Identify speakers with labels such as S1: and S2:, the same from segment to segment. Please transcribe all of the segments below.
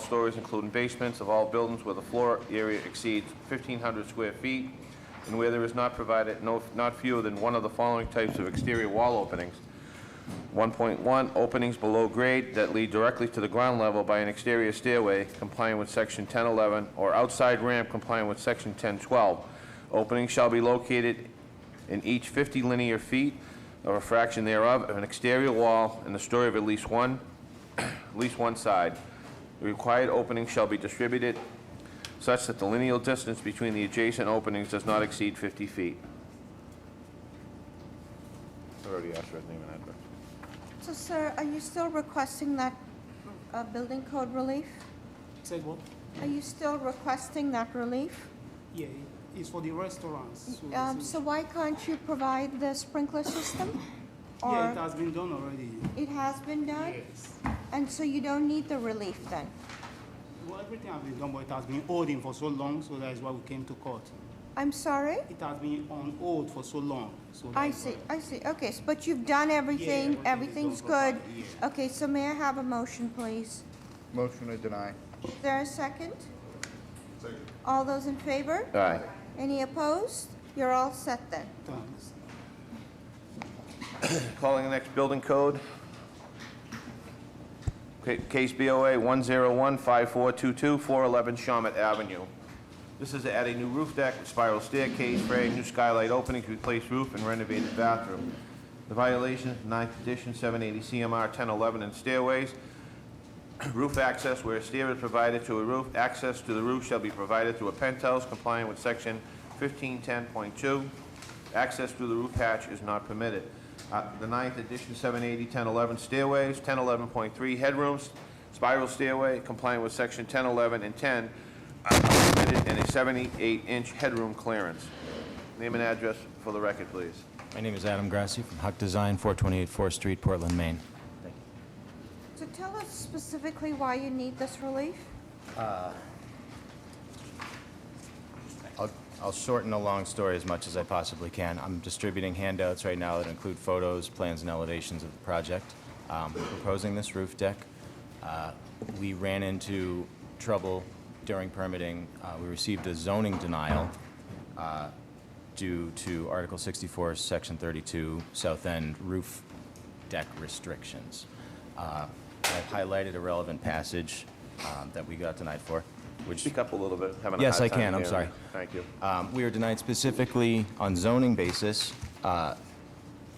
S1: stories, including basements, of all buildings where the floor area exceeds 1,500 square feet, and where there is not provided no, not fewer than one of the following types of exterior wall openings. 1.1, openings below grade that lead directly to the ground level by an exterior stairway complying with Section 1011 or outside ramp complying with Section 1012. Openings shall be located in each 50 linear feet or a fraction thereof of an exterior wall in the story of at least one, at least one side. The required openings shall be distributed such that the lineal distance between the adjacent openings does not exceed 50 feet. I already asked for his name and address.
S2: So, sir, are you still requesting that uh, building code relief?
S3: Say what?
S2: Are you still requesting that relief?
S3: Yeah, it's for the restaurants. so
S2: Um,
S3: it's-
S2: So why can't you provide the sprinkler system?
S3: Yeah, it
S2: Or
S3: has been done already.
S2: it has been done?
S3: Yes.
S2: And so you don't need the relief then?
S3: Well, everything has been done, but it has been holding for so long, so that is why we came to court.
S2: I'm sorry?
S3: It has been on hold for so long, so. that
S2: I
S3: is
S2: see,
S3: why-
S2: I see, okay, s- but you've done
S3: everything
S2: everything, everything's
S3: is done
S2: good.
S3: properly, yeah.
S2: Okay, so may I have a motion, please?
S4: Motion to deny.
S2: Is there a second? All those in favor?
S1: Aye.
S2: Any opposed? You're all set then.
S3: Thanks.
S1: Calling the next building code. Ca- Case BOA 1015422, 411 Shawmut Avenue. This is to add a new roof deck, spiral staircase, for a new skylight openings, replace roof, and renovated bathroom. The violation, ninth edition, 780 CMR 1011 and stairways. Roof access where a stair is provided to a roof, access to the roof shall be provided through a penthouse complying with section 1510.2. Access through the roof hatch is not permitted. Uh, The ninth edition, 780, 1011 stairways, 1011.3 headrooms, spiral stairway complying with section 1011 and 10 are permitted in a 78-inch headroom clearance. Name and address for the record, please.
S5: My name is Adam Grassi from Huck Design, 428 4th Street, Portland, Maine.
S2: So tell us specifically why you need this relief?
S5: I'll I'll shorten the long story as much as I possibly can. I'm distributing handouts right now that include photos, plans, and elevations of the project. Um, We're proposing this roof deck. Uh, We ran into trouble during permitting. Uh, We received a zoning denial uh, due to Article 64, Section 32, South End roof deck restrictions. Uh, I've highlighted a relevant passage um, that we got denied for, which...
S1: Speak up a little bit, having a
S5: Yes,
S1: hard
S5: I can.
S1: time
S5: I'm
S1: hearing.
S5: sorry.
S1: Thank you.
S5: Um, We are denied specifically on zoning basis uh,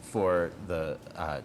S5: for the, uh,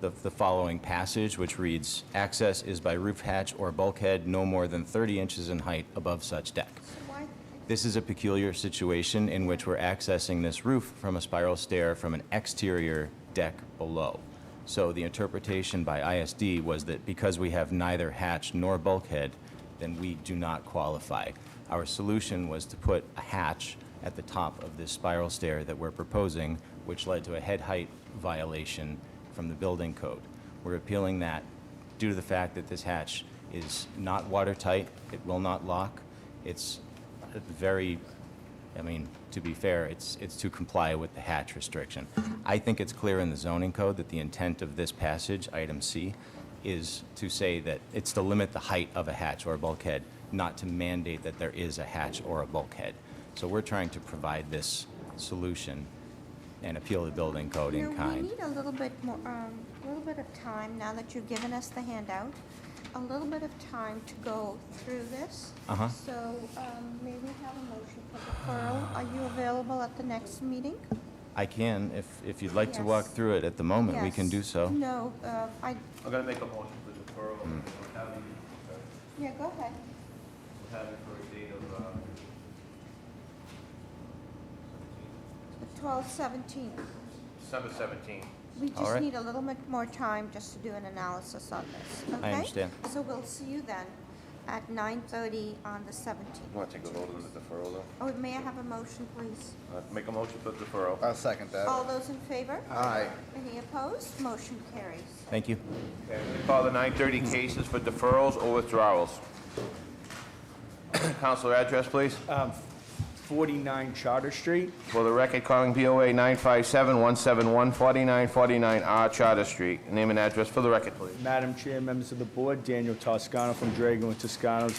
S5: the the following passage, which reads, "Access is by roof hatch or bulkhead no more than 30 inches in height above such deck."
S2: Why,
S5: This is a peculiar situation in which we're accessing this roof from a spiral stair from an exterior deck below. So the interpretation by ISD was that because we have neither hatch nor bulkhead, then we do not qualify. Our solution was to put a hatch at the top of this spiral stair that we're proposing, which led to a head height violation from the building code. We're appealing that due to the fact that this hatch is not watertight, it will not lock, it's a very, I mean, to be fair, it's, it's to comply with the hatch restriction. I think it's clear in the zoning code that the intent of this passage, item C, is to say that it's to limit the height of a hatch or a bulkhead, not to mandate that there is a hatch or a bulkhead. So we're trying to provide this solution and appeal the building code
S2: you
S5: in
S2: know, we
S5: kind.
S2: need a little bit more, um, a little bit of time, now that you've given us the handout, a little bit of time to go through this.
S5: Uh-huh.
S2: So, um, may we have a motion for deferral? Are you available at the next meeting?
S5: I can, if, if you'd like to walk
S2: Yes.
S5: through it at the moment, we can
S2: Yes.
S5: do so.
S2: No, uh, I,
S1: I'm going to make a motion for deferral, having,
S2: yeah, go ahead.
S1: having for a date of, uh,
S2: The twelve seventeen.
S1: December 17th.
S2: We
S5: All
S2: just
S5: right.
S2: need a little bit more time just to do an analysis on this, okay?
S5: understand.
S2: So we'll see you then at nine thirty on the seventeenth.
S1: Want to take a vote on the deferral, though?
S2: Oh, may I have a motion, please?
S1: Uh, Make a motion for deferral.
S4: I'll second
S2: All
S4: that.
S2: those in favor?
S4: Aye.
S2: Any opposed? Motion carries.
S5: Thank you.
S1: Okay, we Call the 930 cases for deferrals or withdrawals. Counselor address, please.
S4: 49 Charter Street.
S1: For the record, calling BOA 957-171-4949R Charter Street. Name and address for the record, please.
S4: Madam Chair, members of the board, Daniel Toscano from Drago and Toscano's